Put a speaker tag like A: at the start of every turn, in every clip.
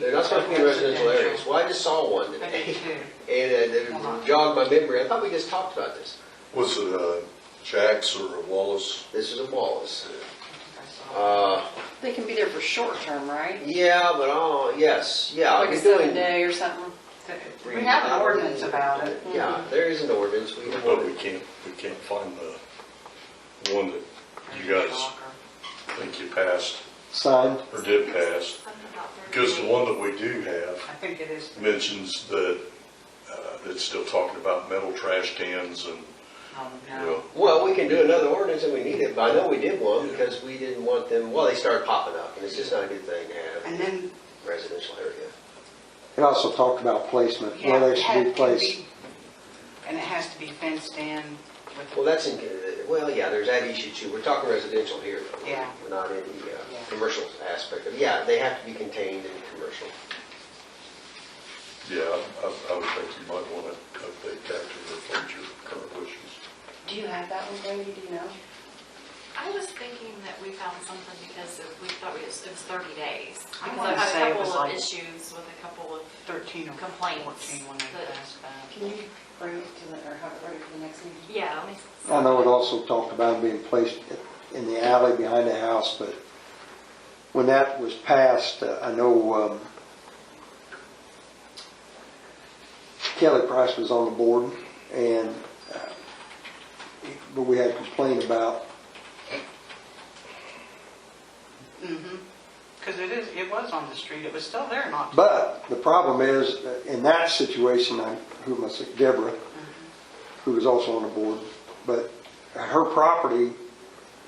A: They're not supposed to be residential areas. Well, I just saw one
B: I
A: today,
B: did too.
A: and uh, it jogged my memory. I thought we just talked about this.
C: Was it uh, Jax or Wallace?
A: This is a Wallace.
B: I saw.
A: Uh,
D: They can be there for short term, right?
A: yeah, but, oh, yes, yeah.
D: Like a
A: we're
D: seven
A: doing-
D: day or something?
B: We have an ordinance about it.
A: Yeah, there is an ordinance. We have
C: But Oh, we
A: one.
C: can't, we can't find the one that you guys think you passed
E: Signed.
C: or did pass. Because the one that we do have
B: I think it is.
C: mentions that uh, it's still talking about metal trash cans and,
B: Oh,
C: you know,
B: no.
A: Well, we can do another ordinance if we need it, but I know we did one because we didn't want them, well, they started popping up, and it's just not a good thing to
B: And
A: have
B: then,
A: a residential area.
E: It also talked about placement,
B: yeah,
E: where they
B: it
E: should
B: has
E: be
B: to
E: placed.
B: be- and it has to be fenced in with,
A: Well, that's in, well, yeah, there's that issue too. We're talking residential here. though.
B: Yeah.
A: We're not in the uh,
B: Yeah.
A: commercial aspect of, yeah, they have to be contained in commercial.
C: yeah, I I would think you might want to update that to reflect your current wishes.
D: Do you have that one, Brady? Do you know?
F: I was thinking that we found something because it- we thought it was it was 30 days.
B: I
F: Because
B: wanna
F: I've
B: say
F: had
B: it
F: a
B: was
F: couple of
B: like-
F: issues with a couple of,
B: 13 or
F: Complaints
B: 14 when they
F: that-
B: passed that.
D: Can you bring it to the, or have it ready for the next meeting?
F: yeah. let me-
E: I know it also talked about being placed in the alley behind the house, but when that was passed, uh, I know um, Kelly Price was on the board, and, uh, but we had complained about
B: Because Mm-hmm. it is, it was on the street, it was still there not too
E: But the problem is, that in that situation, I, who must, Deborah,
B: Mm-hmm.
E: who was also on the board, but her property,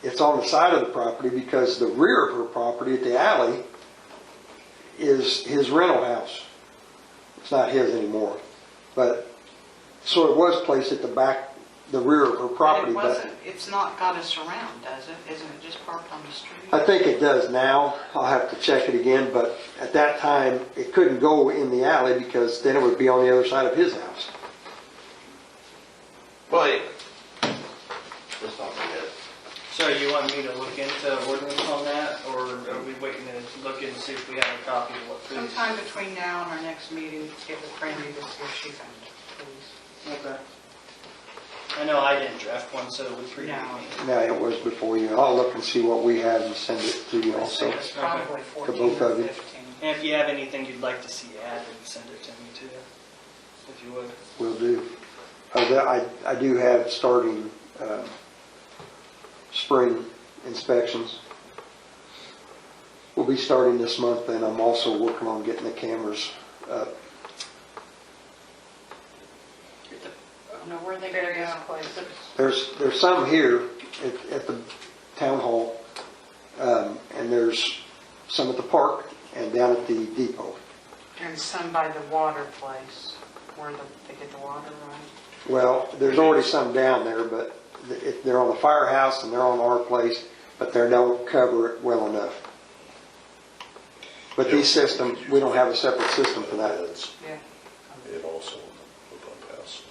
E: it's on the side of the property because the rear of her property at the alley is his rental house. It's not his anymore, but, so it was placed at the back, the rear of her property,
B: It
E: but
B: wasn't, it's not got a surround, does it? Isn't it just parked on the street?
E: I think it does now. I'll have to check it again, but at that time, it couldn't go in the alley because then it would be on the other side of his house.
A: But. Let's talk about that.
G: So you want me to look into ordinance on that, or are we waiting to look and see if we have a copy of what please?
B: Sometime between now and our next meeting, get with Brandy to see if she found it, please.
G: Okay. I know I didn't draft one, so we
B: No.
G: predated me.
E: No, it was before you. I'll look and see what we have and send it to you also.
B: It's probably 14
E: both
B: or
E: of you.
B: 15.
G: And if you have anything you'd like to see added, send it to me too, if you would.
E: Will do. Uh, that- I, I do have starting, uh, spring inspections. We'll be starting this month and I'm also working on getting the cameras up.
D: I don't know where they gotta go.
E: There's, there's some here at, at the town hall, um, and there's some at the park and down at the depot.
B: And some by the water place, where the- they get the water, right?
E: Well, there's already some down there, but if they're on the firehouse and they're on our place, but they don't cover it well enough. But these systems, we don't have a separate system for that.
C: That's
B: Yeah.
C: it also the pump house.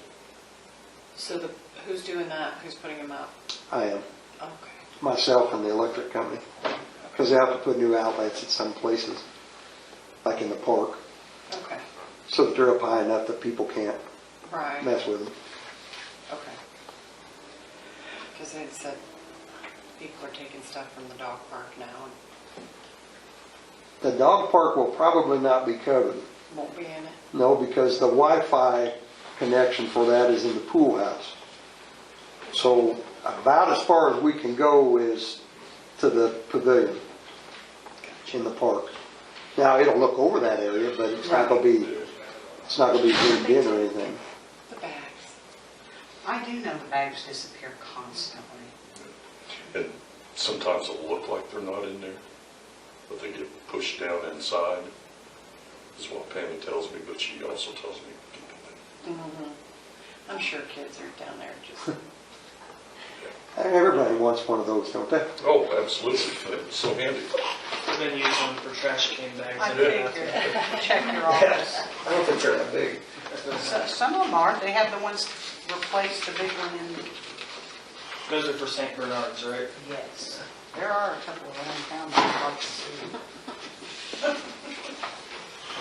D: So the, who's doing that? Who's putting them up?
E: I am,
D: Okay.
E: myself and the electric company, because they have to put new outlets at some places, like in the park,
D: Okay.
E: so that they're up high enough that people can't
D: Right.
E: mess with them.
D: Okay. Because they said people are taking stuff from the dog park now and
E: The dog park will probably not be covered.
D: won't be in it.
E: No, because the Wi-Fi connection for that is in the pool house. So about as far as we can go is to the pavilion in the park. Now, it'll look over that area, but it's not gonna be, it's not gonna be zoomed in or anything.
D: The bags.
B: I do know the bags disappear constantly.
C: And sometimes it'll look like they're not in there, but they get pushed down inside, is what Pammy tells me, but she also tells me.
D: I'm sure kids are down there just.
E: Everybody wants one of those, don't they?
C: Oh, absolutely, that's so handy.
G: I've been using them for trash can bags.
B: I
G: in the
B: figured,
G: bathroom.
B: check your office.
A: I don't think they're that big.
B: So- Some of them are, they have the ones to replace the big one in.
G: Those are for St. Bernard's, right?
B: Yes. There are a couple of them down there, I'd like to see.